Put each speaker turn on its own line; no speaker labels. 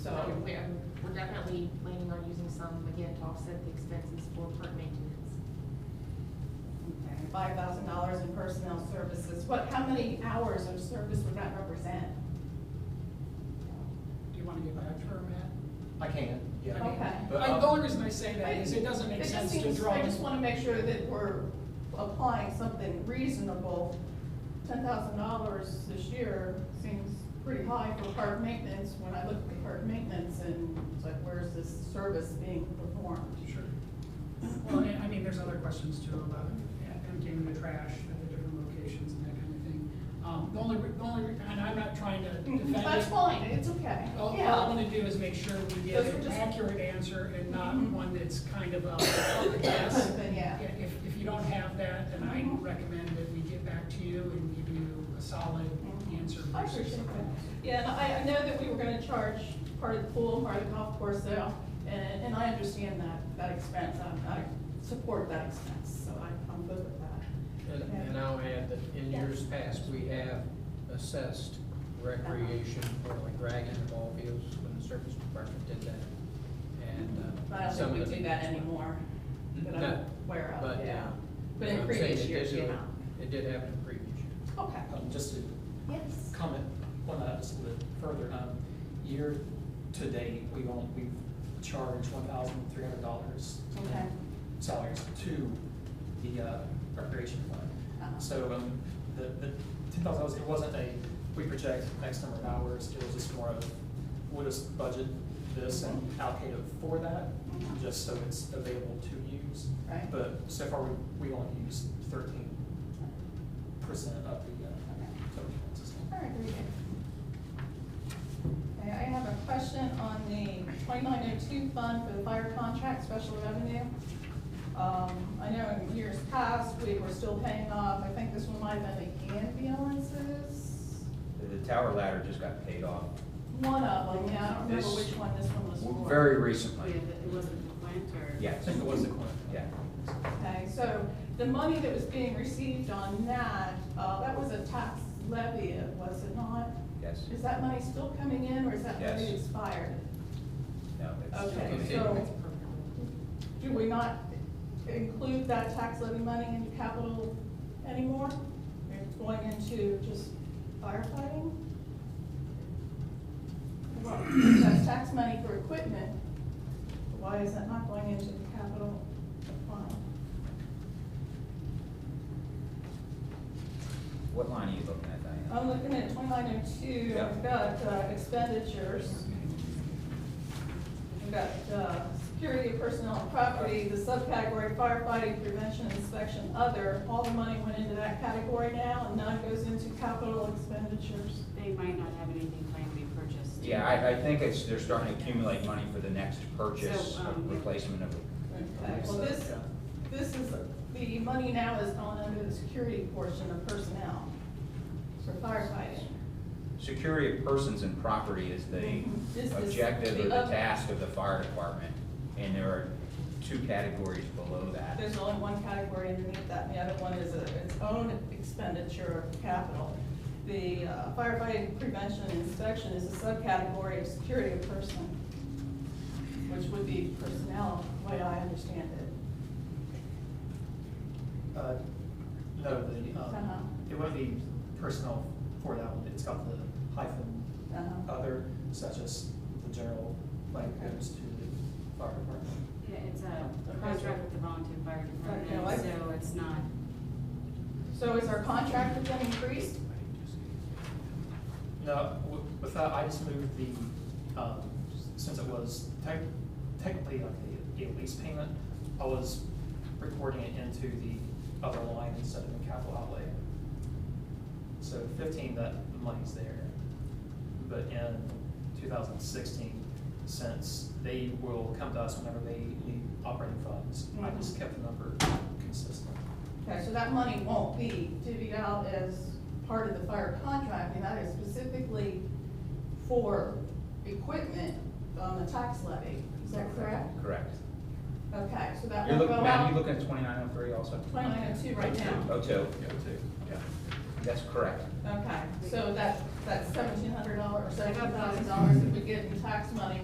um, definitely planning on using some, again, to offset the expenses for park maintenance.
Five thousand dollars in personnel services, what, how many hours of service would that represent?
Do you want to give an term, Matt?
I can, yeah.
Okay.
But,
I-
um,
uh,
The only reason I say that is it doesn't
It
make
just
sense to
seems-
draw.
I just wanna make sure that we're applying something reasonable. Ten thousand dollars this year seems pretty high for park maintenance, when I look at the park maintenance and it's like, where's this service being performed?
Sure. Well, and I mean, there's other questions too about emptying the trash at the different locations and that kind of thing. Um, the only, re- the only, re- and I'm not trying to defend it.
Mm-hmm. That's fine, it's okay,
All, all I
yeah.
wanna do is make sure we get
Those were
an
just-
accurate answer and not
Mhm.
one that's kind of a, oh, yes.
Then, yeah.
Yeah, If, if you don't have that, then I
Mhm.
recommend that we get back to you and give you a solid
Mhm.
answer.
I appreciate that. Yeah, and I, I know that we were gonna charge part of the pool, part of the golf course though, and, and I understand that, that expense, I, I support that expense, so I, I'm good with that.
And, and I'll add that in years past, we have assessed recreation for like drag in the ball fields when the service department did that. And, uh.
But I
some
don't think
of the
we do that
things-
anymore, that I'm
No,
aware
but,
of,
uh,
yeah. But in
I'm saying
previous
it
years,
did
you
do-
know.
It did happen in previous years.
Okay,
Um, Just to
yes.
comment on that just a little bit further, um, year to date, we've only, we've charged one thousand three hundred dollars
Okay.
in salaries to the, uh, recreation
Uh-huh.
fund. So, um, the, the ten thousand dollars, it wasn't a, we project X number of hours, it was just more of, we'll just budget this and allocate it for that,
Mhm.
just so it's available to use.
Right.
But so far, we, we only used thirteen percent of the, uh,
Okay.
total expenses.
All right, very good. Okay, I have a question on the twenty-nine oh two fund for the fire contract special revenue. Um, I know in years past, we were still paying off, I think this one might have been the ambulances,
The tower ladder just got paid off
one of them, yeah, I don't remember
This-
which one this one was for.
very recently.
it wasn't the winter.
I
Yes,
think it was the coin.
yeah.
Okay, so the money that was being received on that, uh, that was a tax levy, was it not?
Yes.
Is that money still coming in, or is that money
Yes.
expired?
No, it's-
Okay,
it's-
so, do we not include that tax levy money into capital anymore? It's going into just firefighting? Well, That's tax money for equipment, why is that not going into the capital fund?
What line are you looking at,
I'm
Diane?
looking at twenty-nine oh two,
Yeah.
I've got uh, expenditures. We've got, uh, security, personnel, and property, the subcategory firefighting, prevention, inspection, other, all the money went into that category now, and none goes into capital expenditures.
They might not have anything planned to be purchased.
Yeah, I, I think it's, they're starting to accumulate money for the next purchase,
So, um,
replacement of.
Okay, well, this, this is, the money now is on under the security portion of personnel for firefighting.
Security of persons and property is the
Mhm. This is
objective
the
or the
other-
task of the fire department. And there are two categories below that.
There's only one category underneath that, and the other one is a- its own expenditure of capital. The uh, firefighting prevention and inspection is a subcategory of security of person, which would be personnel, the way I understand it.
Uh, No, the,
Uh-huh.
um, it wouldn't be personnel for that one, it's got the hyphen
Uh-huh.
other, such as the general, like goes to the fire department.
Yeah, it's a contract with the volunteer fire
Okay, I-
department, so it's not,
So is our contract with them increased?
No, wi- with that, I just moved the, um, since it was tech- technically like a, a lease payment, I was recording it into the other line instead of the capital outlay. So fifteen, that money's there, but in two thousand sixteen, since they will come to us whenever they need operating funds, I just kept the number consistent.
Okay, so that money won't be divvied out as part of the fire contract, and that is specifically for equipment on the tax levy, is that correct?
Correct.
Okay, so that
You're
won't go
looking, Matt, you
out
looking at twenty-nine oh three also?
Uh, twenty-nine oh two right now?
Oh, two. Yeah. That's correct.
Okay, so that, that's seventeen hundred dollars, seventeen thousand dollars that we get in tax money